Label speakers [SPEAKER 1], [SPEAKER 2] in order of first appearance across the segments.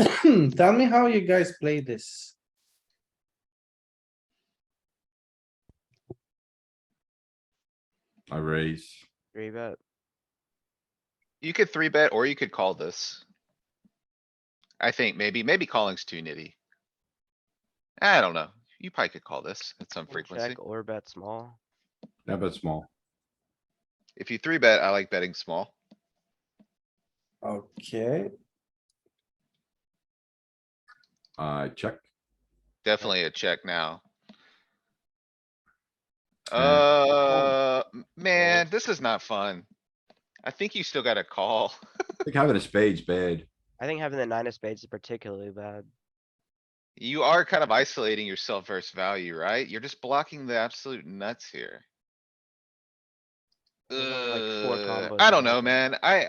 [SPEAKER 1] Hmm, Tell me how you guys play this.
[SPEAKER 2] I raise.
[SPEAKER 3] Three bet.
[SPEAKER 4] You could three bet or you could call this. I think maybe, maybe calling's too nitty. I don't know. You probably could call this at some
[SPEAKER 3] and
[SPEAKER 4] frequency.
[SPEAKER 3] Check or bet small.
[SPEAKER 2] Yeah, but small.
[SPEAKER 4] If you three bet, I like betting small.
[SPEAKER 1] Okay,
[SPEAKER 2] I check.
[SPEAKER 4] Definitely a check now.
[SPEAKER 3] Hmm.
[SPEAKER 2] Okay.
[SPEAKER 4] Uh, m- man, this is not fun. I think you still gotta call.
[SPEAKER 2] I think having a spade's bad.
[SPEAKER 3] I think having the nine of spades is particularly bad.
[SPEAKER 4] You are kind of isolating yourself versus value, right? You're just blocking the absolute nuts here.
[SPEAKER 3] There's only, like, four
[SPEAKER 4] Ugh,
[SPEAKER 3] combos
[SPEAKER 4] Uh, I
[SPEAKER 3] in
[SPEAKER 4] don't
[SPEAKER 3] there.
[SPEAKER 4] know, man. I,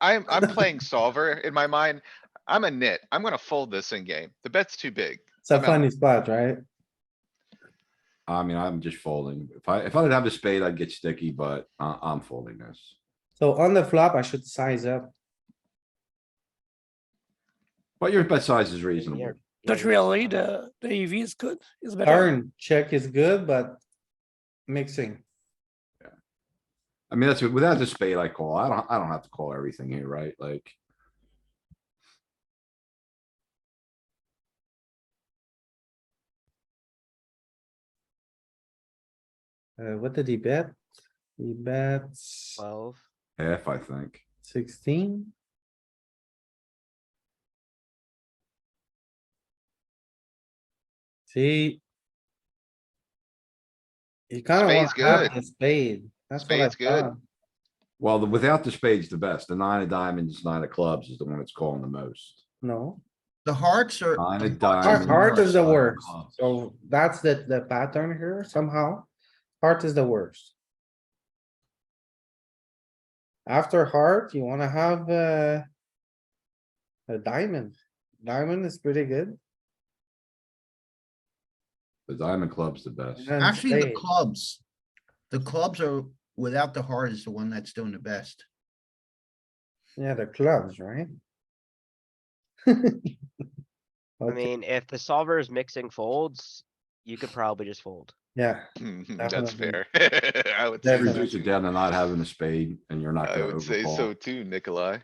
[SPEAKER 4] I'm, I'm playing solver in my mind. I'm a nit. I'm gonna fold this in game. The bet's too big.
[SPEAKER 1] it's a
[SPEAKER 4] I'm out.
[SPEAKER 1] funny spot, right?
[SPEAKER 2] I mean, I'm just folding. If I, if I didn't have the spade, I'd get sticky, but I, I'm folding this.
[SPEAKER 1] So on the flop, I should size up.
[SPEAKER 2] But your bet size is
[SPEAKER 3] Maybe
[SPEAKER 2] reasonable.
[SPEAKER 3] you're-
[SPEAKER 5] But
[SPEAKER 3] you're
[SPEAKER 5] really,
[SPEAKER 3] fine.
[SPEAKER 5] the, the EV is good, is better.
[SPEAKER 1] Turn, check is good, but mixing.
[SPEAKER 2] I mean, that's, without the spade I call. I don't, I don't have to call everything here, right? Like.
[SPEAKER 1] Uh, what did he bet? He bets
[SPEAKER 3] Twelve.
[SPEAKER 2] Half, I think.
[SPEAKER 1] sixteen. See? You kinda
[SPEAKER 4] Spade's
[SPEAKER 1] want to have
[SPEAKER 4] good.
[SPEAKER 1] the spade. That's what I
[SPEAKER 4] Spade's good.
[SPEAKER 1] thought.
[SPEAKER 2] Well, the, without the spade's the best. The nine of diamonds, nine of clubs is the one that's calling the most.
[SPEAKER 1] No,
[SPEAKER 6] The hearts are.
[SPEAKER 2] Nine of
[SPEAKER 1] heart,
[SPEAKER 2] diamonds.
[SPEAKER 1] heart is the
[SPEAKER 2] nine of
[SPEAKER 1] worst.
[SPEAKER 2] clubs.
[SPEAKER 1] So that's the, the pattern here somehow. Heart is the worst. After heart, you wanna have, uh, a diamond. Diamond is pretty good.
[SPEAKER 2] The diamond club's the best.
[SPEAKER 1] and
[SPEAKER 6] Actually, the
[SPEAKER 1] spade.
[SPEAKER 6] clubs. The clubs are, without the heart is the one that's doing the best.
[SPEAKER 1] Yeah, the clubs, right?
[SPEAKER 3] I
[SPEAKER 1] Okay,
[SPEAKER 3] mean, if the solver is mixing folds, you could probably just fold.
[SPEAKER 1] yeah,
[SPEAKER 4] That's
[SPEAKER 1] Definitely.
[SPEAKER 4] fair. I would say,
[SPEAKER 2] That
[SPEAKER 1] Definitely.
[SPEAKER 4] so
[SPEAKER 2] reduces it
[SPEAKER 4] too.
[SPEAKER 2] down to not having a spade and you're not
[SPEAKER 4] I
[SPEAKER 2] gonna
[SPEAKER 4] would say so
[SPEAKER 2] overcall.
[SPEAKER 4] too, Nikolai.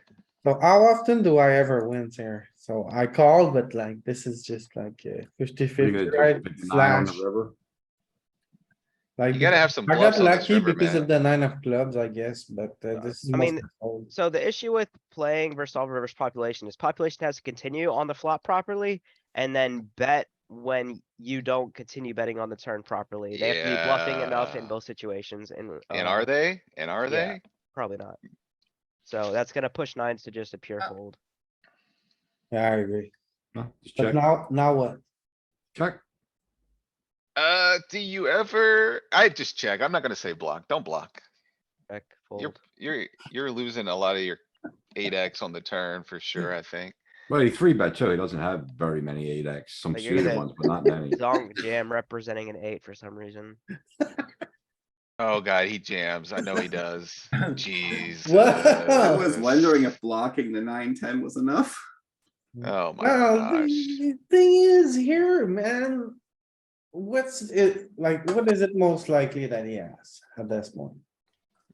[SPEAKER 1] so how often do I ever win here? So I call, but like, this is just like uh, fifty
[SPEAKER 2] What are you
[SPEAKER 1] fifty,
[SPEAKER 2] gonna do,
[SPEAKER 1] right?
[SPEAKER 2] pick the nine on
[SPEAKER 1] Slash.
[SPEAKER 2] the river?
[SPEAKER 1] Like,
[SPEAKER 4] You gotta have some
[SPEAKER 1] I got
[SPEAKER 4] bluffs on this
[SPEAKER 1] lucky
[SPEAKER 4] river,
[SPEAKER 1] because of
[SPEAKER 4] man.
[SPEAKER 1] the nine of clubs, I guess, but uh, this is.
[SPEAKER 3] I mean,
[SPEAKER 1] mostly fold.
[SPEAKER 3] So the issue with playing versus solver versus population is population has to continue on the flop properly and then bet when you don't continue betting on the turn properly. They have to be bluffing enough in
[SPEAKER 4] Yeah.
[SPEAKER 3] both situations and.
[SPEAKER 4] And
[SPEAKER 3] uh,
[SPEAKER 4] are they? And are
[SPEAKER 3] yeah.
[SPEAKER 4] they?
[SPEAKER 3] Probably not. So that's gonna push nines to just a pure
[SPEAKER 6] Uh,
[SPEAKER 3] fold.
[SPEAKER 1] Yeah, I agree.
[SPEAKER 2] No, just
[SPEAKER 1] But
[SPEAKER 2] check,
[SPEAKER 1] now, now what?
[SPEAKER 2] check.
[SPEAKER 4] Uh, do you ever? I just check. I'm not gonna say block. Don't block.
[SPEAKER 3] Check,
[SPEAKER 4] You're,
[SPEAKER 3] fold.
[SPEAKER 4] you're, you're losing a lot of your eight X on the turn for sure, I think.
[SPEAKER 2] Well, he three bet too. He doesn't have very many eight X, some
[SPEAKER 3] But you're
[SPEAKER 2] suited
[SPEAKER 3] gonna-
[SPEAKER 2] ones, but not many.
[SPEAKER 3] Zonk jam representing an eight for some reason.
[SPEAKER 4] Oh god, he jams. I know he does. Jeez.
[SPEAKER 7] I
[SPEAKER 1] Wow.
[SPEAKER 7] was wondering if blocking the nine, ten was enough.
[SPEAKER 4] Oh my
[SPEAKER 1] Well,
[SPEAKER 4] gosh.
[SPEAKER 1] the thing is here, man. What's it, like, what is it most likely that he has at this point?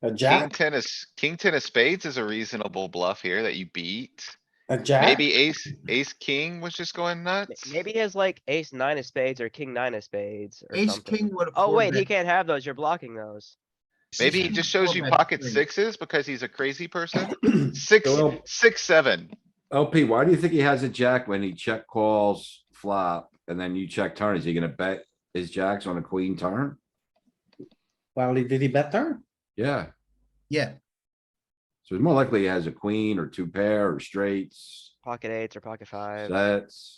[SPEAKER 1] A
[SPEAKER 4] King
[SPEAKER 1] jack,
[SPEAKER 4] ten is, king ten of spades is a reasonable bluff here that you beat.
[SPEAKER 1] a jack?
[SPEAKER 4] Maybe ace, ace, king was just going
[SPEAKER 3] M-
[SPEAKER 4] nuts.
[SPEAKER 3] Maybe he has like ace nine of spades or king nine of spades or
[SPEAKER 6] Ace
[SPEAKER 3] something.
[SPEAKER 6] king would. have
[SPEAKER 3] Oh
[SPEAKER 6] four
[SPEAKER 3] wait, he
[SPEAKER 6] bet.
[SPEAKER 3] can't have those. You're blocking those.
[SPEAKER 4] Maybe he
[SPEAKER 6] Six
[SPEAKER 4] just
[SPEAKER 6] king would
[SPEAKER 4] shows you
[SPEAKER 6] four bet
[SPEAKER 4] pocket
[SPEAKER 6] straight.
[SPEAKER 4] sixes because he's a crazy person. Six,
[SPEAKER 2] Well-
[SPEAKER 4] six, seven.
[SPEAKER 2] LP, why do you think he has a jack when he check calls flop and then you check turn? Is he gonna bet his jacks on a queen turn?
[SPEAKER 1] Well, he- did he bet turn?
[SPEAKER 2] Yeah,
[SPEAKER 6] Yeah,
[SPEAKER 2] so it's more likely he has a queen or two pair or straights,
[SPEAKER 3] Pocket eights or pocket five.
[SPEAKER 2] sets.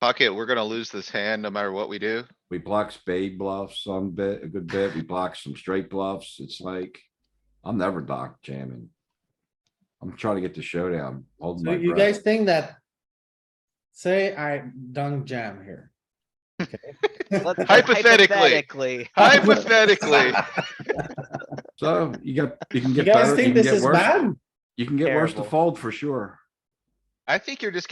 [SPEAKER 4] Pocket, we're gonna lose this hand no matter what we do.
[SPEAKER 2] We block spade bluffs some bit, a good bit. We block some straight bluffs. It's like, I'm never doc jamming. I'm trying to get the showdown, holding
[SPEAKER 1] So
[SPEAKER 2] Oh my
[SPEAKER 1] you guys
[SPEAKER 2] breath.
[SPEAKER 1] think that? Say I dunk jam here.
[SPEAKER 3] Let's-
[SPEAKER 4] Hypothetically.
[SPEAKER 3] Hypothetically.
[SPEAKER 4] Hypothetically,
[SPEAKER 2] So you got, you can
[SPEAKER 1] You
[SPEAKER 2] get
[SPEAKER 1] guys
[SPEAKER 2] better, you
[SPEAKER 1] think
[SPEAKER 2] can
[SPEAKER 1] this
[SPEAKER 2] get
[SPEAKER 1] is
[SPEAKER 2] worse.
[SPEAKER 1] bad?
[SPEAKER 2] You can get worse to
[SPEAKER 3] Terrible.
[SPEAKER 2] fold for sure.
[SPEAKER 4] I think you're just